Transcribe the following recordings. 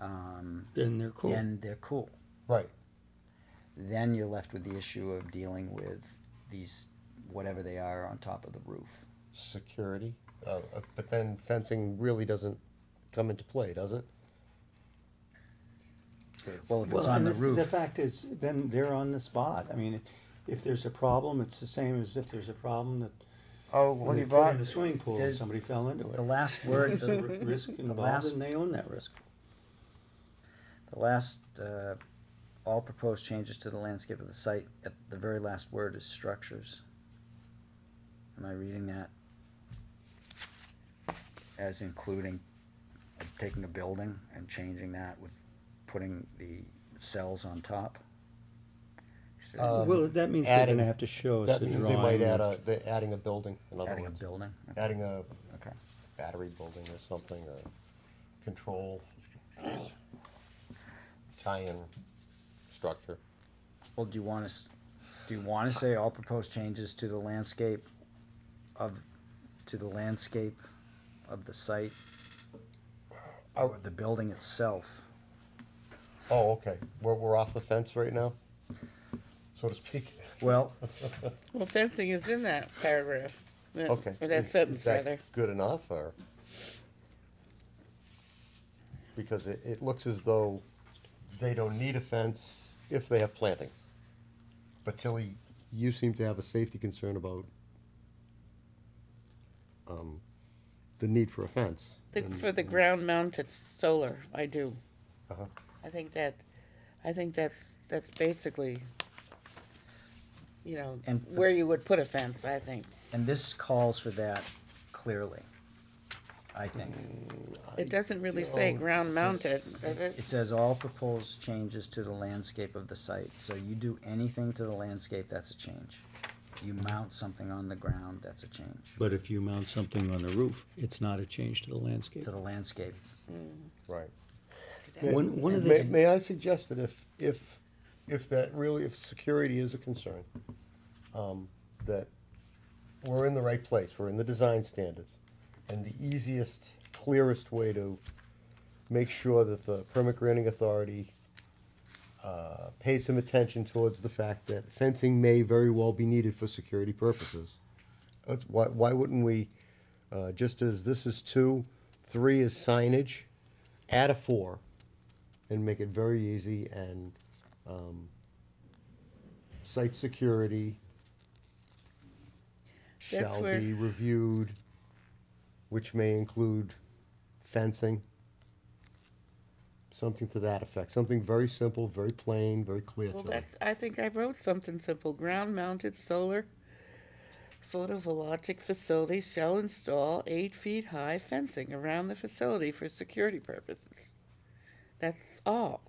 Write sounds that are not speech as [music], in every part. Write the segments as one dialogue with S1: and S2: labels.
S1: um,
S2: Then they're cool.
S1: then they're cool.
S3: Right.
S1: Then you're left with the issue of dealing with these, whatever they are, on top of the roof.
S3: Security, uh, uh, but then fencing really doesn't come into play, does it? It's-
S1: Well, if it's
S2: Well,
S1: on
S2: and
S1: the
S2: f- The
S1: roof,
S2: fact is, then they're on the spot. I mean, if- if there's a problem, it's the same as if there's a problem that
S3: Oh,
S2: when
S3: what do
S2: they
S3: you
S2: put
S3: bought?
S2: in a swimming pool and
S1: is-
S2: somebody fell into
S1: the
S2: it.
S1: last word,
S2: There's a
S1: the
S2: [laughs] r-
S3: [laughs]
S2: risk involved
S1: last-
S2: and they own that risk.
S1: the last, uh, all proposed changes to the landscape of the site, at the very last word is structures. Am I reading that? As including, uh, taking a building and changing that with putting the cells on top? Is there
S3: Uh, Um,
S2: Well, that means they're
S3: adding-
S2: gonna have to show us
S3: That
S2: a
S3: means they might
S2: Oh, drawing.
S3: add a,
S2: of-
S3: they're adding a building, in other
S1: Adding a
S3: words.
S1: building?
S3: Adding a
S1: Okay.
S3: battery building or something, or control tie-in structure.
S1: Well, do you want to, do you want to say all proposed changes to the landscape of, to the landscape of the site? Or
S3: Oh.
S1: the building itself?
S3: Oh, okay, we're, we're off the fence right now, so to speak.
S1: Well,
S4: Well, fencing is in that paragraph. that-
S3: Okay.
S4: Or that
S3: Is- is
S4: sentence,
S3: that
S4: rather.
S3: Good enough, or? Because it, it looks as though they don't need a fence if they have plantings. But Tilly, you seem to have a safety concern about, um, the need for a fence.
S4: The- For the ground mounted solar, I do.
S3: Uh-huh.
S4: I think that, I think that's, that's basically, you know,
S1: And for-
S4: where you would put a fence, I think.
S1: and this calls for that clearly, I think.
S4: It doesn't really say
S3: don't
S4: ground mounted. does it?
S1: It says all proposed changes to the landscape of the site, so you do anything to the landscape, that's a change. You mount something on the ground, that's a change,
S2: But if you mount something on the roof, it's not a change to the landscape.
S1: to the landscape.
S3: Right.
S2: One, one of
S3: May,
S2: the,
S3: may I suggest that if, if, if that really, if security is a concern, um, that we're in the right place, we're in the design standards, and the easiest, clearest way to make sure that the permit granting authority uh, pays some attention towards the fact that fencing may very well be needed for security purposes. That's, why, why wouldn't we, uh, just as this is two, three is signage, add a four and make it very easy and um, site security
S4: That's
S3: shall
S4: where-
S3: be reviewed, which may include fencing. Something to that effect, something very simple, very plain, very clear
S4: Well,
S3: to them.
S4: that's, I think I wrote something simple. Ground mounted solar photovoltaic facility shall install eight feet high fencing around the facility for security purposes. That's all.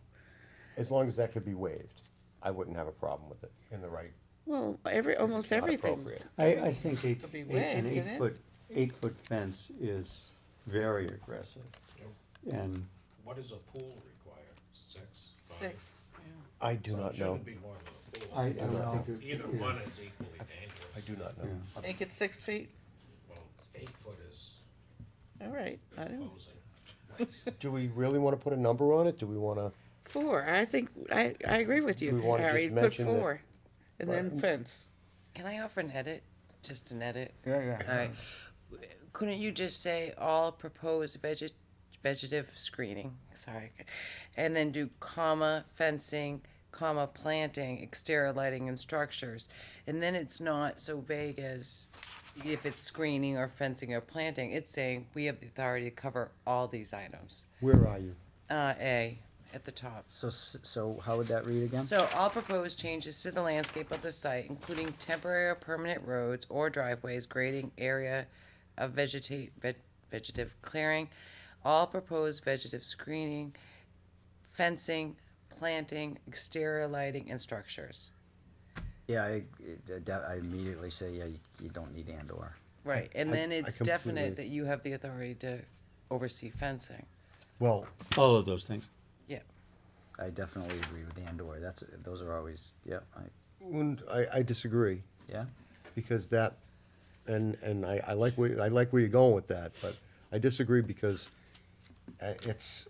S3: As long as that could be waived, I wouldn't have a problem with it in the right,
S4: Well, every,
S3: if
S4: almost
S3: it's not
S4: everything.
S3: appropriate.
S2: I, I think eight,
S4: It'll be
S2: eight-
S4: red,
S2: an
S4: isn't it?
S2: eight-foot, eight-foot fence is very aggressive. And
S5: What does a pool require? Six, five?
S4: Six.
S3: I do
S5: So it
S3: not know,
S5: Shouldn't be more than a pool.
S2: I, I don't think. it-
S5: Either
S2: yeah.
S5: one is equally
S3: I
S5: dangerous.
S3: do not know.
S2: Yeah.
S4: Make it six feet.
S5: Well, eight foot is
S4: All right. I don't.
S5: imposing. Nice.
S3: Do we really wanna put a number on it? Do we wanna?
S4: Four. I think I, I agree with you,
S3: We wanna just
S4: Harry. Put
S3: mention that-
S4: four, and then fence.
S6: Can I offer an edit? Just an edit?
S1: Yeah, yeah.
S6: Alright. Couldn't you just say all proposed veget- vegetative screening, sorry, and then do comma fencing, comma planting, exterior lighting and structures? And then it's not so vague as if it's screening or fencing or planting, it's saying we have the authority to cover all these items.
S3: Where are you?
S6: Uh, A, at the top.
S1: So, s- so how would that read again?
S6: So all proposed changes to the landscape of the site, including temporary or permanent roads or driveways, grading area of vegeta- veg- vegetative clearing, all proposed vegetative screening, fencing, planting, exterior lighting, and structures.
S1: Yeah, I, I doubt- I immediately say, yeah, you, you don't need and or.
S6: Right, and
S3: I-
S6: then
S3: I
S6: it's
S3: completely-
S6: definite that you have the authority to oversee fencing.
S3: Well,
S2: All of those things.
S6: Yeah.
S1: I definitely agree with and or. That's, those are always, yeah, I,
S3: Mm, I, I disagree
S1: yeah.
S3: because that, and, and I, I like where, I like where you're going with that, but I disagree because uh, it's,